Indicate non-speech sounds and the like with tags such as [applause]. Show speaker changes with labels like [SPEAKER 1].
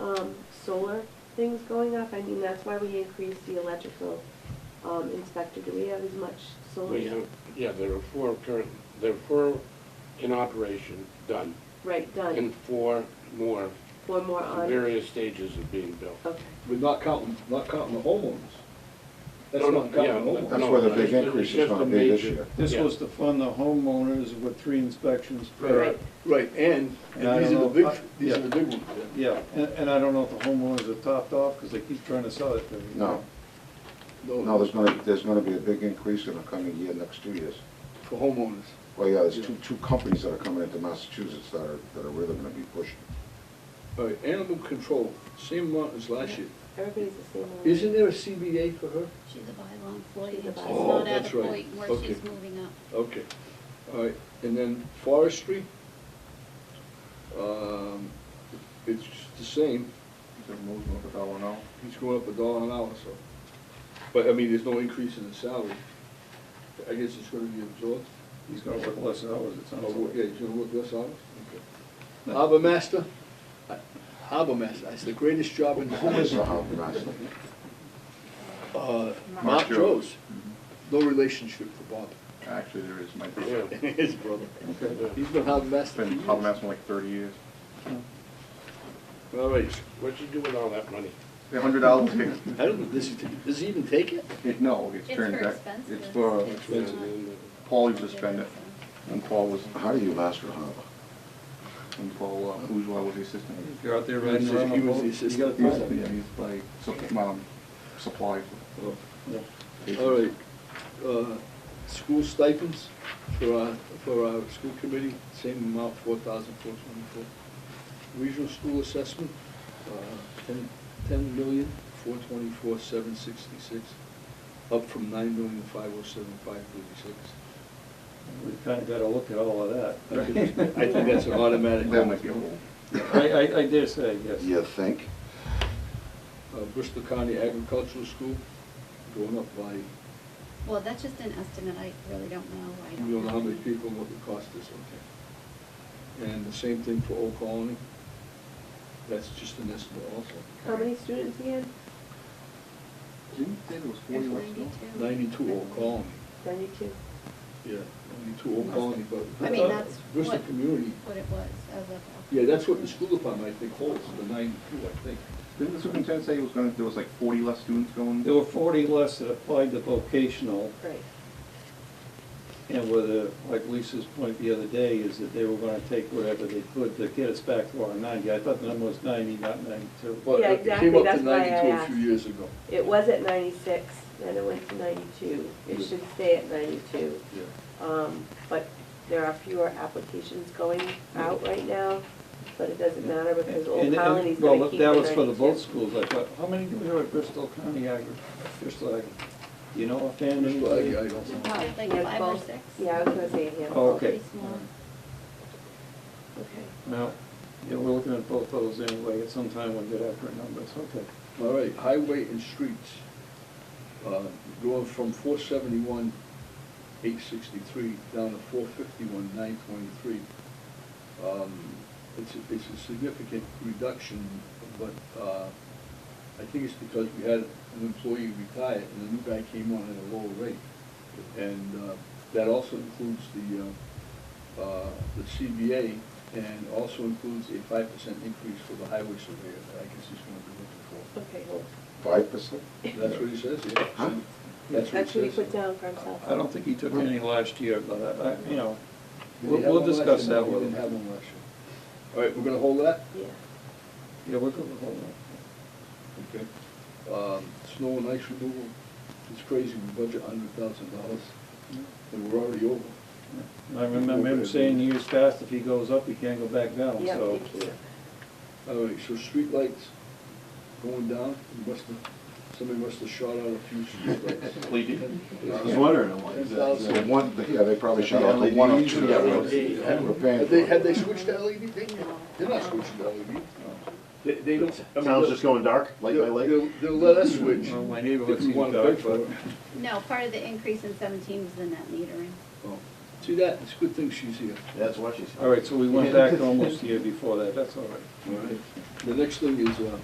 [SPEAKER 1] um, I mean, that's why we increased the electrical um, inspector. Do we have as much solar?
[SPEAKER 2] We have, yeah, there are four current, there are four in operation, done,
[SPEAKER 1] Right, done.
[SPEAKER 2] and four more
[SPEAKER 1] One more
[SPEAKER 2] in
[SPEAKER 1] on.
[SPEAKER 2] various stages of being built.
[SPEAKER 1] Okay.
[SPEAKER 3] But not counting, not counting the homeowners. That's
[SPEAKER 2] No, no,
[SPEAKER 3] not
[SPEAKER 2] yeah,
[SPEAKER 3] counting the
[SPEAKER 2] no,
[SPEAKER 3] homeowners.
[SPEAKER 4] That's where the
[SPEAKER 2] it's
[SPEAKER 4] big increase is
[SPEAKER 2] just
[SPEAKER 4] gonna
[SPEAKER 2] a
[SPEAKER 4] be this
[SPEAKER 2] major-
[SPEAKER 4] year.
[SPEAKER 5] This
[SPEAKER 2] Yeah.
[SPEAKER 5] was to fund the homeowners with three inspections per.
[SPEAKER 1] Right.
[SPEAKER 3] Right, and,
[SPEAKER 5] And I
[SPEAKER 3] and these are the
[SPEAKER 5] don't know
[SPEAKER 3] big,
[SPEAKER 5] if I-
[SPEAKER 3] these are
[SPEAKER 5] yeah.
[SPEAKER 3] the big ones. yeah.
[SPEAKER 5] Yeah, and, and I don't know if the homeowners are topped off, because they keep trying to sell it. but-
[SPEAKER 4] No, no, there's gonna, there's gonna be a big increase in the coming year, next two years.
[SPEAKER 3] For homeowners.
[SPEAKER 4] Well, yeah, there's two, two companies that are coming into Massachusetts that are, that are really gonna be pushing.
[SPEAKER 3] All right, animal control, same amount as last year.
[SPEAKER 1] Everybody's the same. on-
[SPEAKER 3] Isn't there a CBA for her?
[SPEAKER 6] She's a bylaw employee,
[SPEAKER 1] She's a
[SPEAKER 6] and she's
[SPEAKER 1] bylaw.
[SPEAKER 3] Oh,
[SPEAKER 6] not at
[SPEAKER 3] that's
[SPEAKER 6] a
[SPEAKER 3] right.
[SPEAKER 6] point where
[SPEAKER 3] Okay.
[SPEAKER 6] she's moving up.
[SPEAKER 3] Okay, all right, and then forestry? Um, it's the same, he's going up a dollar an hour, so. But, I mean, there's no increase in the salary. I guess it's gonna be absorbed.
[SPEAKER 5] He's gonna work less hours, it sounds
[SPEAKER 3] Oh,
[SPEAKER 5] like.
[SPEAKER 3] Yeah, he's gonna work less hours? Okay. Harbor master? I- Harbor master, that's the greatest job in the
[SPEAKER 4] Who is the
[SPEAKER 3] business.
[SPEAKER 4] harbor master?
[SPEAKER 3] Uh, Mark
[SPEAKER 7] Mark
[SPEAKER 3] Joe's.
[SPEAKER 7] Jones.
[SPEAKER 3] No relationship for Bob. [laughs]
[SPEAKER 7] Actually, there is, my
[SPEAKER 2] Yeah.
[SPEAKER 7] brother.
[SPEAKER 3] His brother.
[SPEAKER 5] Okay.
[SPEAKER 2] Yeah.
[SPEAKER 3] He's been harbor
[SPEAKER 7] It's
[SPEAKER 3] master for
[SPEAKER 7] been Harbor
[SPEAKER 3] years.
[SPEAKER 7] Master like thirty years.
[SPEAKER 3] All right,
[SPEAKER 2] What'd you do with all that money?
[SPEAKER 7] A hundred dollars
[SPEAKER 3] I don't, know, does he, does he even take it?
[SPEAKER 7] It, no, it's
[SPEAKER 6] It's for
[SPEAKER 7] turned back.
[SPEAKER 6] expenses.
[SPEAKER 7] It's for,
[SPEAKER 2] And
[SPEAKER 3] Expensive.
[SPEAKER 2] then,
[SPEAKER 7] Paul used to spend it, when Paul was,
[SPEAKER 4] How do you master harbor?
[SPEAKER 7] when Paul uh, Bourgeois was the assistant.
[SPEAKER 5] If You're out there riding
[SPEAKER 3] He was
[SPEAKER 5] around.
[SPEAKER 3] the
[SPEAKER 5] on a boat, You
[SPEAKER 3] assistant.
[SPEAKER 5] gotta
[SPEAKER 7] He used to
[SPEAKER 5] find
[SPEAKER 7] be,
[SPEAKER 5] it.
[SPEAKER 7] he's like, supp- um, supplies.
[SPEAKER 3] Oh,
[SPEAKER 5] Yeah.
[SPEAKER 3] All right, uh, school stipends for our, for our school committee, same amount, four thousand four twenty-four. Regional school assessment, uh, ten, ten million, four twenty-four, seven sixty-six, up from nine million, five oh seven, five thirty-six.
[SPEAKER 5] We kinda gotta look at all of
[SPEAKER 3] I think
[SPEAKER 5] that.
[SPEAKER 3] I think that's an automatic.
[SPEAKER 7] That might be a little.
[SPEAKER 5] I, I, I dare say, yes.
[SPEAKER 4] You think?
[SPEAKER 3] Uh, Bristol County Agricultural School, going up by,
[SPEAKER 6] Well, that's just an estimate, I really don't know, I
[SPEAKER 3] we don't know how many
[SPEAKER 6] don't know.
[SPEAKER 3] people, and what the cost is, okay. And the same thing for Old Colony, that's just an estimate also.
[SPEAKER 1] How many students again?
[SPEAKER 7] Didn't you say there was forty
[SPEAKER 6] There's
[SPEAKER 7] left still?
[SPEAKER 6] 92.
[SPEAKER 3] Ninety-two Old Colony,
[SPEAKER 1] Ninety-two.
[SPEAKER 3] yeah, ninety-two Old Colony, but.
[SPEAKER 6] I mean, that's
[SPEAKER 3] Bristol
[SPEAKER 6] what-
[SPEAKER 3] Community,
[SPEAKER 6] What it was as of.
[SPEAKER 3] yeah, that's what the school department, I think, holds, the ninety-two, I think.
[SPEAKER 7] Didn't the superintendent say he was gonna, there was like forty less students going?
[SPEAKER 5] There were forty less that applied to vocational,
[SPEAKER 1] Right.
[SPEAKER 5] and whether, like Lisa's point the other day, is that they were gonna take whatever they could to get us back to our ninety. I thought the number was ninety, not ninety-two.
[SPEAKER 3] But
[SPEAKER 1] Yeah,
[SPEAKER 3] it
[SPEAKER 1] exactly,
[SPEAKER 3] Came up
[SPEAKER 1] that's
[SPEAKER 3] to
[SPEAKER 1] why I
[SPEAKER 3] ninety-two a
[SPEAKER 1] asked.
[SPEAKER 3] few years ago.
[SPEAKER 1] It was at ninety-six, then it went to ninety-two. It should stay at ninety-two.
[SPEAKER 3] Yeah.
[SPEAKER 1] Um, But there are fewer applications going out right now, but it doesn't matter because Old
[SPEAKER 5] And- and-
[SPEAKER 1] Colony's gonna
[SPEAKER 5] Well,
[SPEAKER 1] keep the
[SPEAKER 5] that was for the
[SPEAKER 1] 92.
[SPEAKER 5] both schools, I thought, how many do we have at Bristol County Agri, Bristol Agri? Do you know offhand?
[SPEAKER 3] Bristol, I,
[SPEAKER 5] anybody?
[SPEAKER 3] I don't know.
[SPEAKER 6] Probably like
[SPEAKER 1] Yeah,
[SPEAKER 6] five or
[SPEAKER 1] both.
[SPEAKER 6] six.
[SPEAKER 1] Oh, Yeah, I was gonna say, yeah.
[SPEAKER 5] Oh, okay.
[SPEAKER 6] Pretty small.
[SPEAKER 1] Okay.
[SPEAKER 5] No, yeah, we're looking at both of those anyway, at some time we'll get accurate numbers, okay.
[SPEAKER 3] All right, highway and streets, uh, going from four seventy-one, eight sixty-three, down to four fifty-one, nine twenty-three. Um, It's, a- it's a significant reduction, but uh, I think it's because we had an employee retire and a new guy came on at a lower rate. And uh, that also includes the, uh, uh, the CBA and also includes a five percent increase for the highway surveyor that I guess he's gonna be looking for.
[SPEAKER 1] Okay, hold.
[SPEAKER 4] Five percent?
[SPEAKER 3] That's what he says,
[SPEAKER 4] Huh?
[SPEAKER 3] yeah. That's
[SPEAKER 1] That's
[SPEAKER 3] what
[SPEAKER 1] what he
[SPEAKER 3] he
[SPEAKER 1] put
[SPEAKER 3] says.
[SPEAKER 1] down for himself.
[SPEAKER 5] I don't think he took any last year, but I, I- you know,
[SPEAKER 3] Did he
[SPEAKER 5] we'll,
[SPEAKER 3] have
[SPEAKER 5] we'll
[SPEAKER 3] one last
[SPEAKER 5] discuss
[SPEAKER 3] year? No,
[SPEAKER 5] that with
[SPEAKER 3] He
[SPEAKER 5] him.
[SPEAKER 3] didn't have one last year. All right, we're gonna hold that?
[SPEAKER 1] Yeah.
[SPEAKER 5] Yeah, we'll go with all that.
[SPEAKER 3] Okay. Um, snow and ice removal, it's crazy, we budget hundred thousand dollars, and we're already over.
[SPEAKER 5] I remember him saying years past, if he goes up, he can't go back down,
[SPEAKER 1] Yeah,
[SPEAKER 5] so.
[SPEAKER 1] thank you.
[SPEAKER 3] All right, so streetlights going down, you must have, somebody must have shot out a few streetlights.
[SPEAKER 7] They did.
[SPEAKER 3] Yeah.
[SPEAKER 7] I was wondering, I'm like,
[SPEAKER 3] Ten
[SPEAKER 7] is that-
[SPEAKER 3] thousand.
[SPEAKER 4] The one, yeah, they probably shut off the one or two.
[SPEAKER 3] Yeah,
[SPEAKER 4] that were-
[SPEAKER 3] LEDs.
[SPEAKER 4] that were
[SPEAKER 3] Had
[SPEAKER 4] paying
[SPEAKER 3] they,
[SPEAKER 4] for.
[SPEAKER 3] had they switched to LED? They, they're not switching to E LED. They, they don't. I mean,
[SPEAKER 7] Town's
[SPEAKER 3] they'll-
[SPEAKER 7] just going dark, light by
[SPEAKER 3] they'll-
[SPEAKER 7] light?
[SPEAKER 3] They'll, they'll let us switch.
[SPEAKER 5] Well, my
[SPEAKER 3] If
[SPEAKER 5] neighborhood
[SPEAKER 3] we
[SPEAKER 5] seems
[SPEAKER 3] want to
[SPEAKER 5] dark,
[SPEAKER 3] pay for
[SPEAKER 5] but
[SPEAKER 3] it.
[SPEAKER 6] No, part of the increase in seventeen was the net metering.
[SPEAKER 3] Oh, See that, it's a good thing she's here.
[SPEAKER 7] That's what she said.
[SPEAKER 3] [laughs]
[SPEAKER 5] All right, so we went back almost a year before that, that's all right.
[SPEAKER 3] All right. The next thing is, uh,